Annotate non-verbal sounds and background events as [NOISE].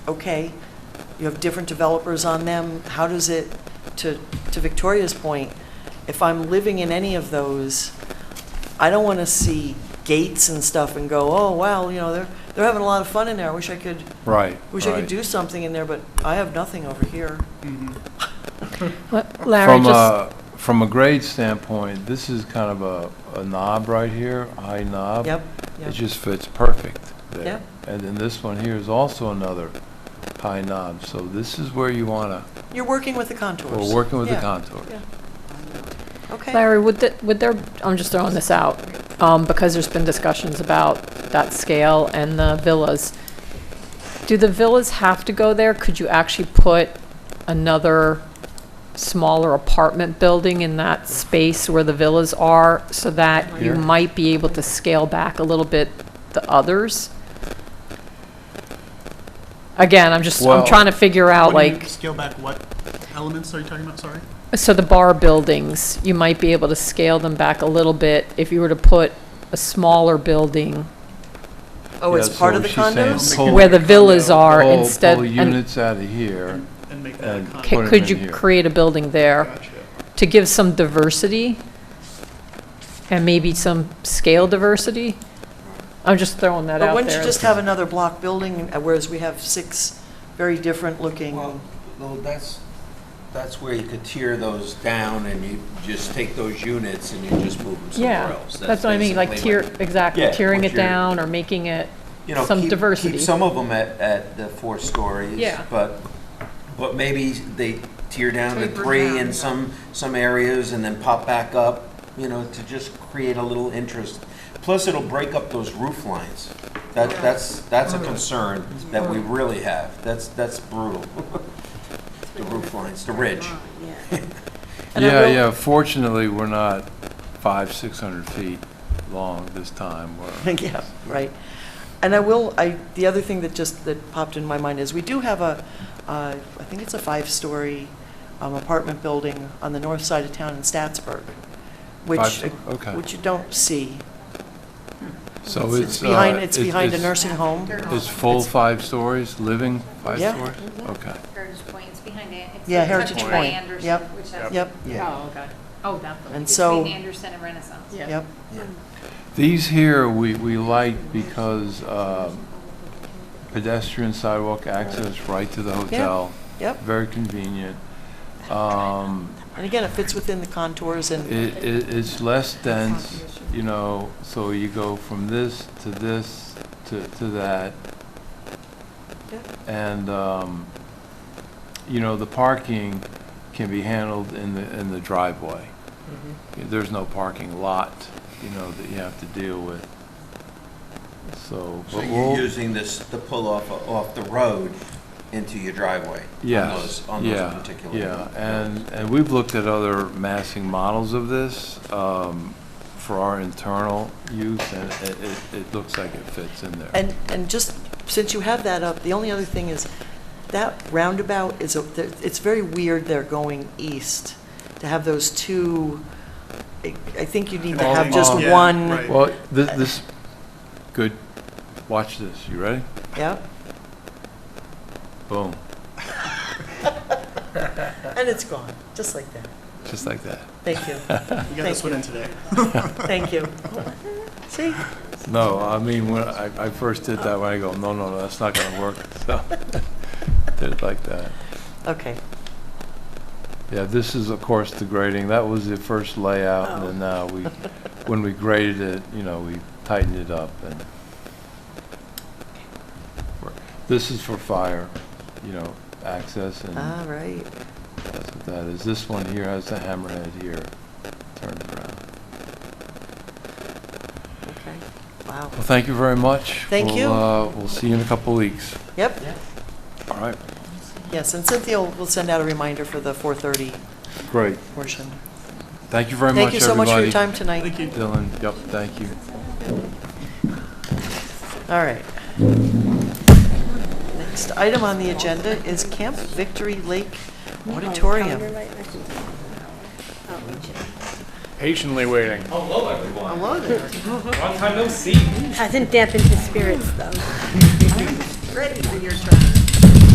okay, you have different developers on them, how does it, to, to Victoria's point, if I'm living in any of those, I don't want to see gates and stuff and go, oh, wow, you know, they're, they're having a lot of fun in there, I wish I could, Right. wish I could right. do something in there, but I have nothing over here. What- Larry, From uh, just, a, from a grade standpoint, this is kind of a, a knob right here, high knob. Yep, It yep, just fits perfect Yeah. there. And then this one here is also another high knob, so this is where you wanna, you're working with the contours. we're working with the Yeah, contour. yeah. Okay, Larry, would, th- would there, I'm just throwing this out, um, because there's been discussions about that scale and the villas. Do the villas have to go there? Could you actually put another smaller apartment building in that space where the villas are so that you Here? might be able to scale back a little bit the others? Again, I'm just, Well- I'm trying to figure out What do you like. Scale back what elements are you talking about, sorry? So the bar buildings, you might be able to scale them back a little bit if you were to put a smaller building oh, it's Yeah, part so of the she's saying condos? pull- where the villas are pull- instead. Pull and units out of here. And make that a And con- c- put 'em Could in you here. create a building there Gotcha. to give some diversity? And maybe some scale diversity? I'm just throwing that But out wouldn't you there. just have another block building, uh, whereas we have six very different looking? Well, no, that's, that's where you could tear those down and you just take those units and you just move them somewhere Yeah, else. that's what I mean, like basically tier, what- exactly, Yeah, tearing what it you're- down or making it, you know, some keep- diversity. Keep some of them at, at the four stories. Yeah. But, but maybe they tear down to Taper three down, in yeah. some, some areas and then pop back up, you know, to just create a little interest. Plus, it'll break up those roof lines. That, that's, that's a Oh, concern that we really have. That's, that's [LAUGHS] brutal. The roof lines, the ridge. Yeah. And I Yeah, will- yeah, fortunately, we're not five, 600 feet long this time. We're [LAUGHS] Yeah, right. And I will, I, the other thing that just, that popped in my mind is, we do have a, uh, I think it's a five-story um, apartment building on the north side of town in Statsburg, which, uh, Five- okay. which you don't see. So It's it's. uh, behind, it's it- behind a it's- nursing home. It's full five stories, living five Yeah. stories? Okay. Heritage Point, it's behind it. It's Yeah, tucked Heritage behind Point. Anderson, Yep. which has- Yep, Yeah. okay. Oh, that's and Between so, Anderson and Renaissance. yep, These here, we, we like because uh, pedestrian sidewalk access right to the hotel. yep. Very convenient. Um, And again, it fits within the contours and, It, it, it's less dense, you know, so you go from this to this to, to that. And, um, you know, the parking can be handled in the, in the driveway. There's no parking lot, you know, that you have to deal with. So, So but you're we'll, using this, the pull off, off the road into your driveway? on yes, those- On those yeah, particular. yeah. And, and we've looked at other massing models of this, um, for our internal use, and it, it, it looks like it fits in there. and, and just, since you have that up, the only other thing is, that roundabout is, a- there- it's very weird they're going east, to have those two, I I think you need to have just Multi- Yeah, one. right. Well, thi- this, good, watch this, you ready? Yep, Boom, and it's gone, just like that. just like that. Thank you, We got this Thank one in today. thank you. [LAUGHS] See, No, I mean, when I, I first did that, when I go, no, no, no, that's not gonna work, [LAUGHS] so, did it like that. okay, Yeah, this is, of course, the grading, that was the first layout, and then now we, Oh. when we graded it, you know, we tightened it up, and this is for fire, you know, access, and all right, that's what that is. This one here has the hammerhead here, turned around. okay, wow. Well, thank you very much. Thank We'll, you. uh, We'll see you in a couple weeks. Yep, All right, yes, and Cynthia will will send out a reminder for the 4:30 great. portion. Thank you very Thank much, everybody. you so much for your time tonight. Thank you. Dylan, yep, thank you. All right. Next item on the agenda is Camp Victory Lake Auditorium. Patiently waiting. Hello there. Long time no see. Hasn't dampened his spirits, though. Ready for your turn.